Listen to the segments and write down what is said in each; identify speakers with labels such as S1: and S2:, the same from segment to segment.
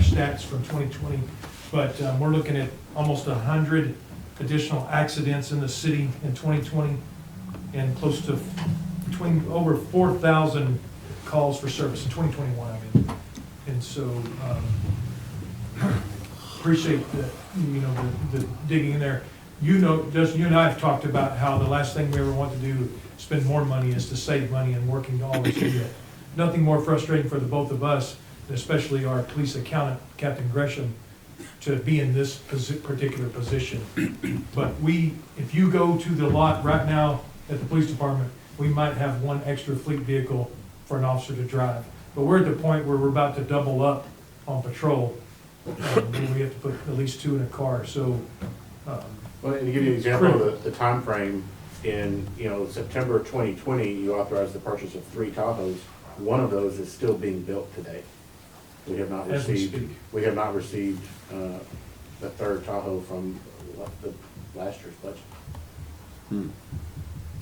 S1: stats from 2020, but um, we're looking at almost 100 additional accidents in the city in 2020, and close to, between, over 4,000 calls for service in 2021, I mean. And so, um, appreciate the, you know, the the digging in there. You know, Justin, you and I have talked about how the last thing we ever want to do, spend more money, is to save money and working to always do that. Nothing more frustrating for the both of us, especially our police accountant, Captain Gresham, to be in this posi- particular position. But we, if you go to the lot right now at the police department, we might have one extra fleet vehicle for an officer to drive. But we're at the point where we're about to double up on patrol, um, where we have to put at least two in a car, so, um,
S2: Well, and to give you an example of the, the timeframe, in, you know, September twenty twenty, you authorized the purchase of three Tahoes. One of those is still being built today. We have not
S1: As we
S2: received,
S1: speak.
S2: we have not received, uh, the third Tahoe from la- the last year's budget.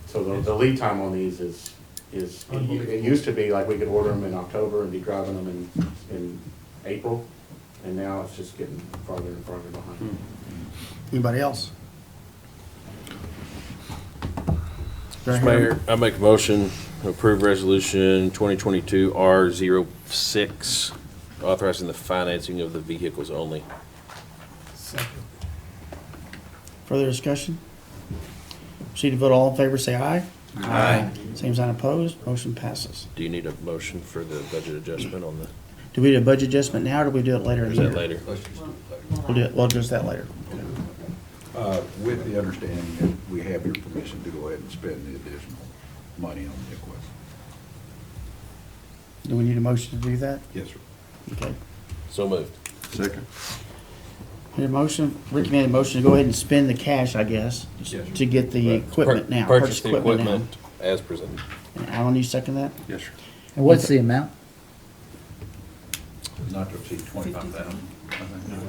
S2: So the, the lead time on these is, is, it u- it used to be like we could order them in October and be driving them in, in April. And now it's just getting farther and farther behind.
S3: Anybody else? Do I
S4: Mr.
S3: hear-
S4: Mayor, I make a motion to approve resolution 2022 R06, authorizing the financing of the vehicles only.
S3: Further discussion? Proceed to vote. All in favor, say aye. Aye. Same sign opposed. Motion passes.
S4: Do you need a motion for the budget adjustment on the,
S3: Do we do a budget adjustment now, or do we do it later
S4: or
S3: in
S4: is
S3: the
S4: that
S3: year?
S4: later?
S3: We'll do it, we'll address that later.
S5: Uh, With the understanding that we have your permission to go ahead and spend the additional money on the equipment.
S3: Do we need a motion to do that?
S5: Yes, sir.
S3: Okay.
S4: So moved.
S5: Second.
S3: Need a motion, Rick made a motion to go ahead and spend the cash, I guess,
S5: Yes, sir.
S3: to get the
S4: Right.
S3: equipment now.
S4: Pur- Purchase the
S3: equipment now.
S4: equipment as presented.
S3: And Alan, you second that?
S5: Yes, sir.
S6: And what's the amount?
S5: Not to exceed twenty-five thousand.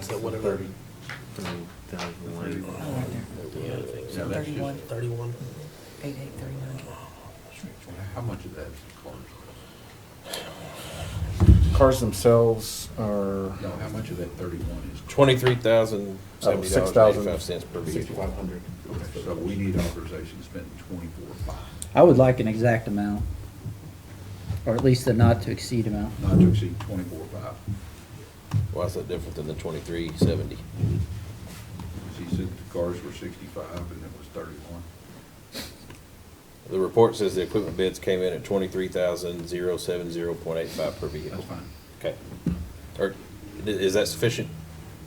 S4: Is that whatever?
S6: Thirty-one,
S4: Thirty-one.
S6: eight, eight, thirty-nine.
S5: How much of that is cars?
S7: Cars themselves are,
S5: No, how much of that thirty-one is?
S4: Twenty-three thousand seventy dollars and eighty-five cents per vehicle.
S2: Sixty-five hundred.
S5: Okay, So we need authorization to spend twenty-four five,
S6: I would like an exact amount, or at least the not to exceed amount.
S5: not to exceed twenty-four five.
S4: Why is that different than the twenty-three seventy?
S5: He said the cars were sixty-five and it was thirty-one.
S4: The report says the equipment bids came in at twenty-three thousand zero seven zero point eight five per vehicle.
S5: That's fine.
S4: Okay. Or, i- is that sufficient?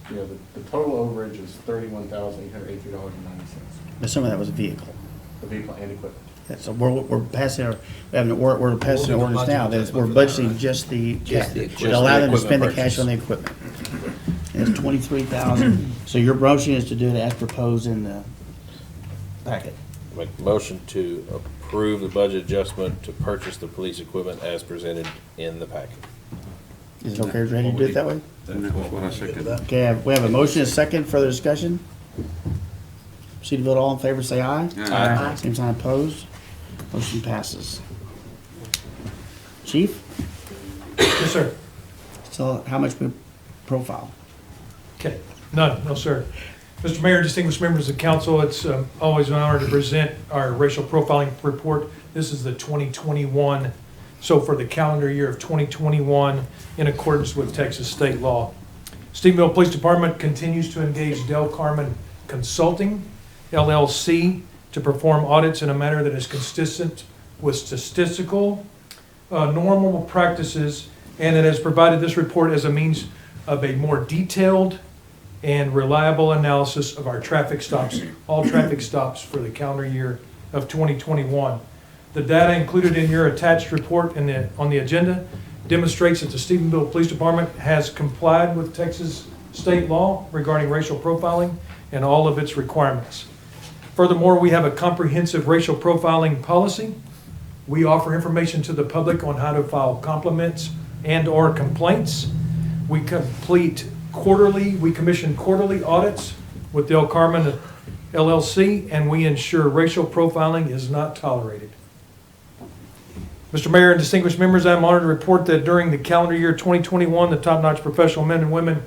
S7: you know, the, the total overage is thirty-one thousand eight hundred eighty-three dollars and ninety cents.
S3: But some of that was a vehicle.
S7: The vehicle and equipment.
S3: Yeah, So we're, we're passing, our- we're having, we're, we're passing an ordinance now, that is- we're budgeting just the, ca-
S4: Just the- just
S3: to allow them
S4: the
S3: to spend the
S4: equipment
S3: cash on the equipment. And It's twenty-three thousand, so your motion is to do it as proposed in the packet.
S4: Make a motion to approve the budget adjustment to purchase the police equipment as presented in the packet.
S3: Is it okay, Randy, to do it that way?
S5: That's what I second.
S3: Okay, I have- we have a motion, a second, further discussion? Proceed to vote, all in favor, say aye.
S4: Aye.
S3: Same sign opposed, motion passes. Chief,
S1: yes, sir.
S3: so how much we profile?
S1: Okay, none, no, sir. Mr. Mayor, distinguished members of council, it's um, always an honor to present our racial profiling report. This is the 2021, so for the calendar year of 2021, in accordance with Texas state law. Stevieville Police Department continues to engage Del Carmen Consulting LLC to perform audits in a manner that is consistent with statistical, uh, normal practices, and it has provided this report as a means of a more detailed and reliable analysis of our traffic stops, all traffic stops for the calendar year of 2021. The data included in your attached report in the, on the agenda demonstrates that the Stephenville Police Department has complied with Texas state law regarding racial profiling and all of its requirements. Furthermore, we have a comprehensive racial profiling policy. We offer information to the public on how to file compliments and/or complaints. We complete quarterly, we commission quarterly audits with Del Carmen LLC, and we ensure racial profiling is not tolerated. Mr. Mayor and distinguished members, I am honored to report that during the calendar year 2021, the top-notch professional men and women